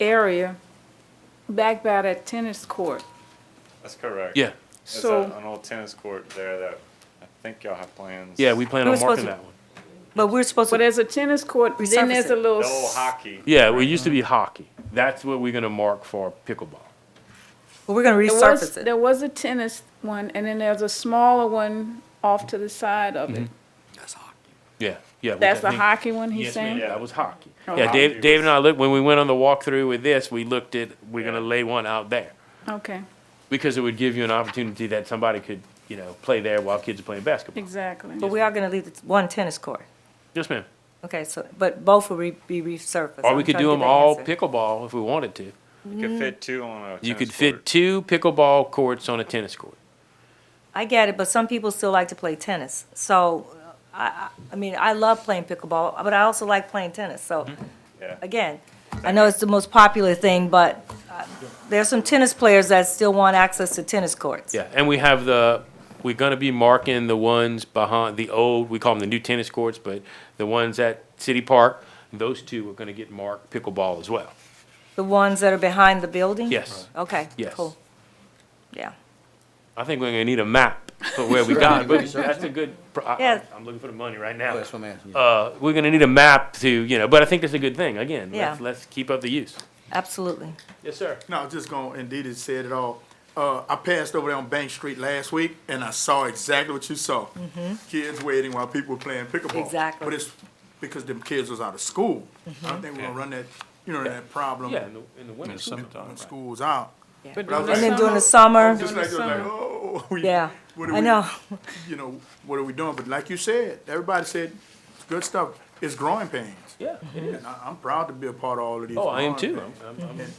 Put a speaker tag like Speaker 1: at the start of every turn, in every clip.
Speaker 1: area back by that tennis court.
Speaker 2: That's correct.
Speaker 3: Yeah,
Speaker 2: There's
Speaker 1: So-
Speaker 2: a- an old tennis court there that I think y'all have plans.
Speaker 3: yeah, we plan
Speaker 4: We
Speaker 3: on
Speaker 4: were
Speaker 3: marking
Speaker 4: supposed to-
Speaker 3: that one.
Speaker 4: But we're supposed
Speaker 1: But
Speaker 4: to,
Speaker 1: there's a tennis court, then
Speaker 4: Resurface
Speaker 1: there's a
Speaker 4: it.
Speaker 1: little.
Speaker 2: The old hockey.
Speaker 3: Yeah, well, it used to be hockey. That's what we're gonna mark for pickleball.
Speaker 4: we're gonna
Speaker 1: There was,
Speaker 4: resurface it.
Speaker 1: there was a tennis one, and then there's a smaller one off to the side of it.
Speaker 3: Yeah, yeah. we
Speaker 1: That's the
Speaker 3: definitely-
Speaker 1: hockey one he's
Speaker 3: Yes, ma'am,
Speaker 1: saying?
Speaker 3: that was hockey.
Speaker 1: Oh.
Speaker 3: Yeah,
Speaker 2: Hockey
Speaker 3: Dave, Dave and
Speaker 2: was-
Speaker 3: I looked, when we went on the walkthrough with this, we looked at, we're gonna
Speaker 2: Yeah.
Speaker 3: lay one out there.
Speaker 1: Okay,
Speaker 3: Because it would give you an opportunity that somebody could, you know, play there while kids are playing basketball.
Speaker 1: exactly.
Speaker 4: But we are gonna leave the one tennis court.
Speaker 3: Yes, ma'am.
Speaker 4: Okay, so, but both will re- be resurfaced.
Speaker 3: Or
Speaker 4: I'm
Speaker 3: we could
Speaker 4: trying to
Speaker 3: do
Speaker 4: get
Speaker 3: them
Speaker 4: that
Speaker 3: all
Speaker 4: answer.
Speaker 3: pickleball if we wanted to.
Speaker 2: You could fit two on a tennis
Speaker 3: You could
Speaker 2: court.
Speaker 3: fit two pickleball courts on a tennis court.
Speaker 4: I get it, but some people still like to play tennis. So, uh, I, I, I mean, I love playing pickleball, but I also like playing tennis, so,
Speaker 3: Mm-hmm.
Speaker 2: Yeah.
Speaker 4: again, I know it's the most popular thing, but uh, there's some tennis players that still want access to tennis courts.
Speaker 3: Yeah, and we have the, we're gonna be marking the ones behind the old, we call them the new tennis courts, but the ones at City Park, those two are gonna get marked pickleball as well.
Speaker 4: The ones that are behind the building?
Speaker 3: Yes.
Speaker 4: Okay,
Speaker 3: Yes.
Speaker 4: cool. Yeah.
Speaker 3: I think we're gonna need a map for where we got, but that's a good, pro- I-
Speaker 4: Yeah.
Speaker 3: I, I'm looking for the money right now.
Speaker 5: That's what I'm asking you.
Speaker 3: Uh, we're gonna need a map to, you know, but I think that's a good thing, again, let's,
Speaker 4: Yeah.
Speaker 3: let's keep up the use.
Speaker 4: Absolutely.
Speaker 3: Yes, sir.
Speaker 6: No, I was just going, to indeed it said it all. Uh, I passed over there on Bank Street last week and I saw exactly what you saw. Kids waiting while people were playing pickleball.
Speaker 4: Mm-hmm. Exactly. Mm-hmm.
Speaker 6: But it's because them kids was out of school. I don't think we're gonna run that, you know, that problem
Speaker 3: Yeah, in the, in the winter.
Speaker 6: when school's out.
Speaker 1: But
Speaker 6: And
Speaker 4: And then
Speaker 1: during
Speaker 4: during the summer,
Speaker 6: Just like, it was like, oh. we-
Speaker 4: yeah,
Speaker 6: what are
Speaker 4: I
Speaker 6: we-
Speaker 4: know.
Speaker 6: You know, what are we doing? But like you said, everybody said, it's good stuff. It's growing pains.
Speaker 3: Yeah, it is.
Speaker 6: And I, I'm proud to be a part of all of these.
Speaker 3: Oh, I am
Speaker 6: growing
Speaker 3: too.
Speaker 6: pains.
Speaker 3: I'm- I'm- I'm-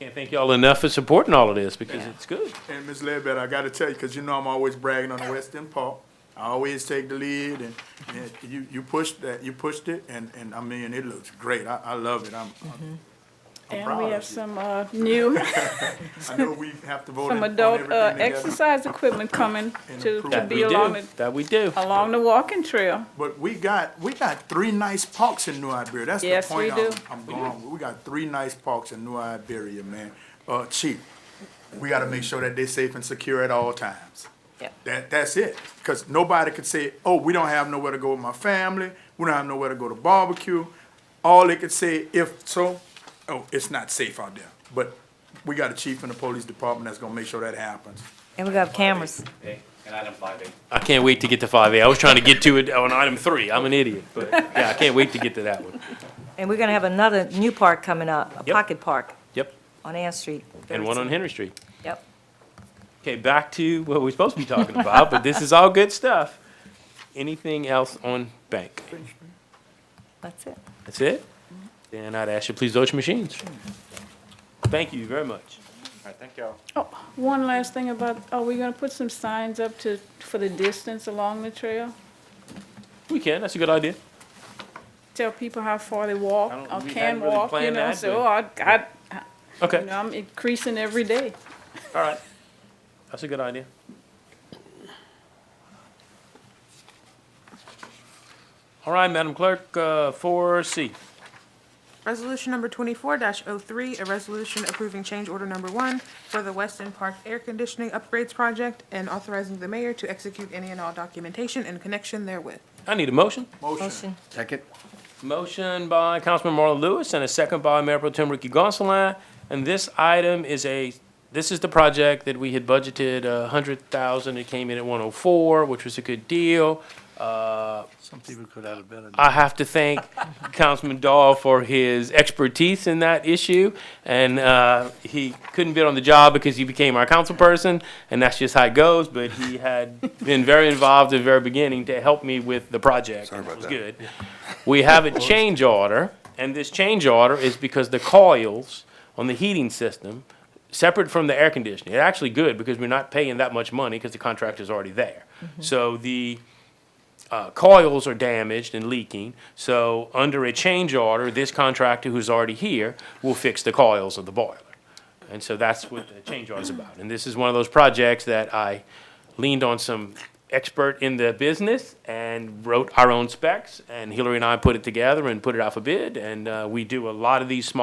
Speaker 3: Can't thank y'all enough for supporting all of this, because it's good.
Speaker 6: And Ms. Ledbetter, I gotta tell you, cause you know I'm always bragging on the West End Park. I always take the lead and, and you, you pushed that, you pushed it and, and I mean, it looks great. I, I love it. I'm, I'm- I'm
Speaker 1: Mm-hmm. And
Speaker 6: proud
Speaker 1: we
Speaker 6: of
Speaker 1: have
Speaker 6: you.
Speaker 1: some, uh, new,
Speaker 6: I know we have to vote in-
Speaker 1: some
Speaker 6: on
Speaker 1: adult, uh,
Speaker 6: everything together,
Speaker 1: exercise equipment coming
Speaker 6: And
Speaker 1: to,
Speaker 6: improve
Speaker 1: to
Speaker 3: That
Speaker 1: be Oh.
Speaker 3: we
Speaker 1: along
Speaker 3: do,
Speaker 1: the,
Speaker 3: that we do.
Speaker 1: along the walking trail.
Speaker 6: but we got, we got three nice parks in New Iberia. That's the
Speaker 1: Yes, we
Speaker 6: point I'm,
Speaker 1: do.
Speaker 6: I'm going. with. We got three nice parks in New Iberia, man. Uh, chief, we gotta make sure that they're safe and secure at all times.
Speaker 4: Yeah.
Speaker 6: That, that's it. Because nobody could say, oh, we don't have nowhere to go with my family. We don't have nowhere to go to barbecue. All they could say, if so, oh, it's not safe out there. But we got a chief in the police department that's gonna make sure that happens.
Speaker 4: And we got cameras.
Speaker 7: And item five A.
Speaker 3: I can't wait to get to five A. I was trying to get to it on item three. I'm an idiot, but yeah, I can't wait to get to that one.
Speaker 4: And we're gonna have another new park coming up, a
Speaker 3: Yep.
Speaker 4: pocket park
Speaker 3: Yep,
Speaker 4: on Ann Street.
Speaker 3: and one on
Speaker 4: 32.
Speaker 3: Henry Street.
Speaker 4: Yep.
Speaker 3: Okay, back to what we're supposed to be talking about, but this is all good stuff. Anything else on bank?
Speaker 4: That's it.
Speaker 3: That's it? Then I'd ask you, to please vote your machines. Thank you very much.
Speaker 2: I think y'all.
Speaker 1: Oh, one last thing about, are we gonna put some signs up to, for the distance along the trail?
Speaker 3: We can, that's a good idea.
Speaker 1: Tell people how far they walk
Speaker 3: I don't-
Speaker 1: or
Speaker 3: we
Speaker 1: can
Speaker 3: hadn't really
Speaker 1: walk, you
Speaker 3: planned
Speaker 1: know,
Speaker 3: that,
Speaker 1: so,
Speaker 3: but-
Speaker 1: I, I, you
Speaker 3: Okay,
Speaker 1: know, I'm increasing every day.
Speaker 3: all right. That's a good idea. All right, Madam Clerk, uh, four C.
Speaker 8: Resolution number twenty-four 3 a resolution approving change order number one for the Weston Park Air Conditioning Upgrades Project and authorizing the mayor to execute any and all documentation in connection therewith.
Speaker 3: I need a motion.
Speaker 4: Motion.
Speaker 5: Second?
Speaker 3: Motion by Councilman Marlon Lewis and a second by Mayor Pro Tem Ricky Gonsalas. And this item is a, this is the project that we had budgeted uh, a hundred thousand. It came in at one oh four, which was a good deal. Uh,
Speaker 5: Some people could have been.
Speaker 3: I have to thank Councilman Dahl for his expertise in that issue. And uh, he couldn't bid on the job because he became our councilperson, and that's just how it goes. But he had been very involved at the very beginning to help me with the project. and
Speaker 5: Sorry about
Speaker 3: was good. We have a change order, and this change order is because the coils on the heating system, separate from the air conditioning, it's actually good because we're not paying that much money because the contract is already there. So the uh, coils are damaged and leaking, so under a change order, this contractor who's already here will fix the coils of the boiler. And so that's what the change order is about. And this is one of those projects that I leaned on some expert in the business and wrote our own specs, and Hillary and I put it together and put it out for bid, and uh, we do a lot of these small